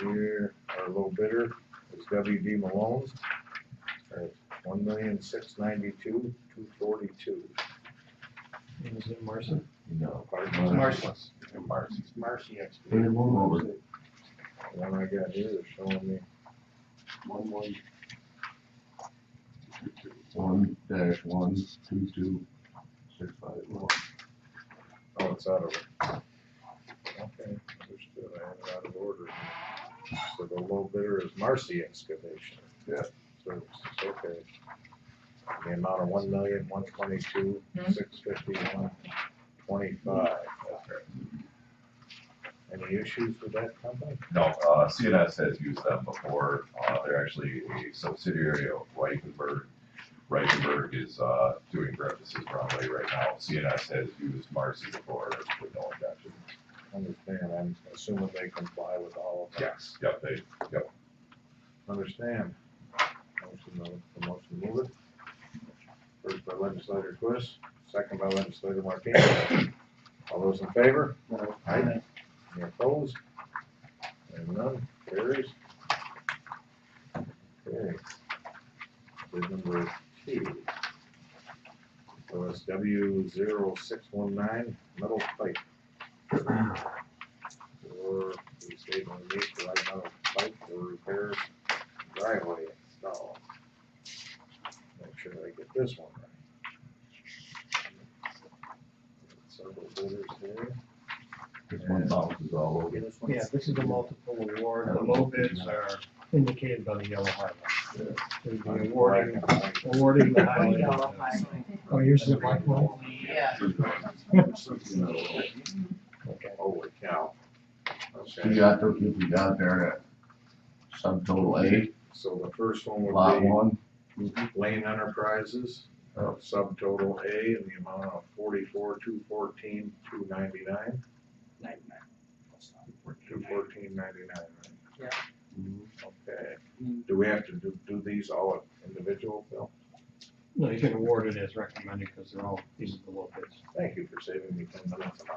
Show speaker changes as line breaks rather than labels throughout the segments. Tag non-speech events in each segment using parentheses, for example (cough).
Here, our low bidder is WD Malone at one million six ninety-two, two forty-two.
Is it Marcy?
No.
It's
pardon.
Marcellus.
Marcy.
It's Marcy
Bring
Excavating.
them all over.
The one I got here is showing me
One, one. One dash one, two, two, six, five, one.
Oh, it's out of it. Okay, understood, I had it out of order. here. So the low bidder is Marcy Excavation.
Yeah.
So it's okay. The amount of one million, one twenty-two, six fifty-one, twenty-five. Any issues with that company?
No, uh, CNS has used them before. Uh, they're actually a subsidiary of Reichenberg. Reichenberg is, uh, doing Breakfast Broadway right now. CNS has used Marcy before with no objection.
Understand, I'm assuming they comply with all of that.
Yes. Yep, they,
Understand. Motion, uh, motion to move it. First by legislator Twist, second by legislator Martinez. All those in favor? Aye. Any opposed? And none, carries. Okay. Bid number two. So it's W zero six one nine, metal pipe. Or, we say, on the need to like metal pipe for repair driveway install. Make sure I get this one right. Several bidders here.
This one bounces all over.
This one's-
Yeah, this is a multiple award. The low bids are indicated by the yellow highlight. So we'd be awarding, awarding the (laughs) highlight. Oh, yours is a black one?
Yeah.
Okay.
Holy cow.
We
Okay,
got to, if we got there at subtotal eight,
so the first one
lot
would
one,
be Lane Enterprises,
Oh.
subtotal A in the amount of forty-four, two fourteen, two ninety-nine, two fourteen ninety-nine, right? Yeah. Okay,
Mm-hmm.
do we have to do, do these all individual, Phil?
No, you can award it as recommended because they're all, these are the low bids.
Thank you for saving me ten minutes of my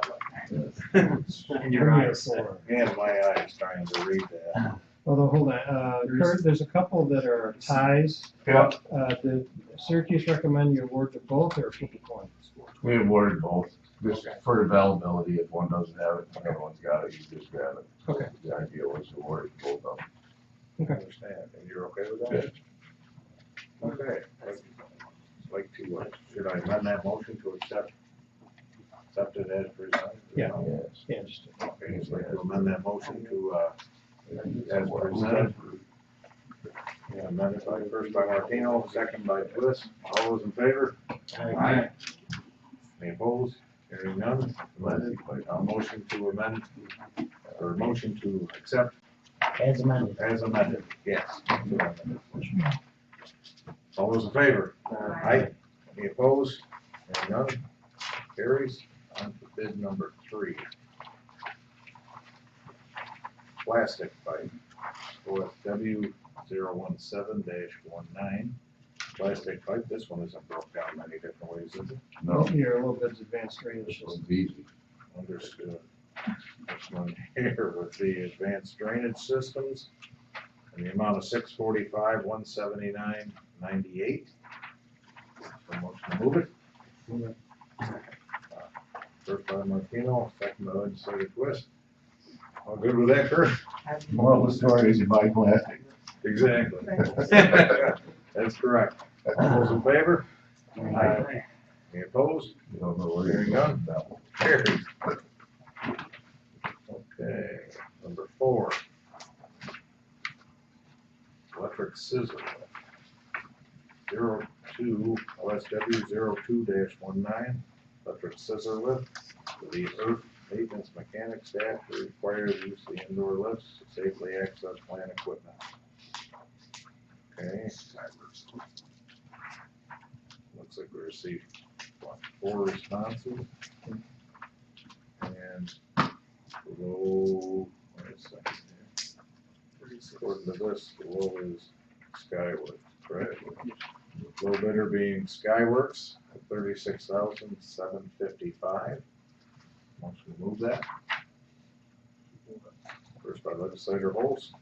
life. (laughs)
In
your eyes.
Four.
Man, my eyes trying to read that.
Although, hold on, uh, Kurt, there's a couple that are ties.
Yep.
Uh, did Syracuse recommend you award to both or flip a coin?
we awarded both, just for availability, if one doesn't have it, and everyone's got it, you just grab it.
Okay.
The idea was to award both of them.
Okay.
Understand, and you're okay with that? Okay, like- like to, uh, should I amend that motion to accept, accept it as presented?
Yeah.
Yes.
Yeah, just,
Okay, so like to amend that motion to, uh, As presented. yeah, amend it by, first by Martino, second by Bliss, all those in favor? Aye. Any opposed? Hearing none, amended, a motion to amend, or motion to accept
as amended.
As amended, yes. All those in favor? Aye. Any opposed? Hearing none, carries. On to bid number three. Plastic pipe, OFW zero one seven dash one nine. Plastic pipe, this one isn't broke down many different ways, is it?
No,
You're Oh, a little bit advanced range,
this
it's just-
one's easy.
Understood. This one here with the advanced drainage systems and the amount of six forty-five, one seventy-nine, ninety-eight. So motion to move it. Uh, First by Martino, second by legislator Twist. All good with that, Kurt?
Moral of the story is you buy plastic.
Exactly. (laughs) That's correct. All those in favor? Aye. Any opposed?
You don't know where
There you
you're
go.
going with that one.
Carries. Okay, number four. Electric scissor. Zero two, OSW zero two dash one nine, electric scissor lift for the earth maintenance mechanic staff to require the use of the indoor lifts to safely access plant equipment. Okay. Looks like we received, what, four responses? And the low, wait a second here. According to this, the low is Skyworks, correct? Low bidder being Skyworks, thirty-six thousand seven fifty-five. Once we move that. First by legislator Holst,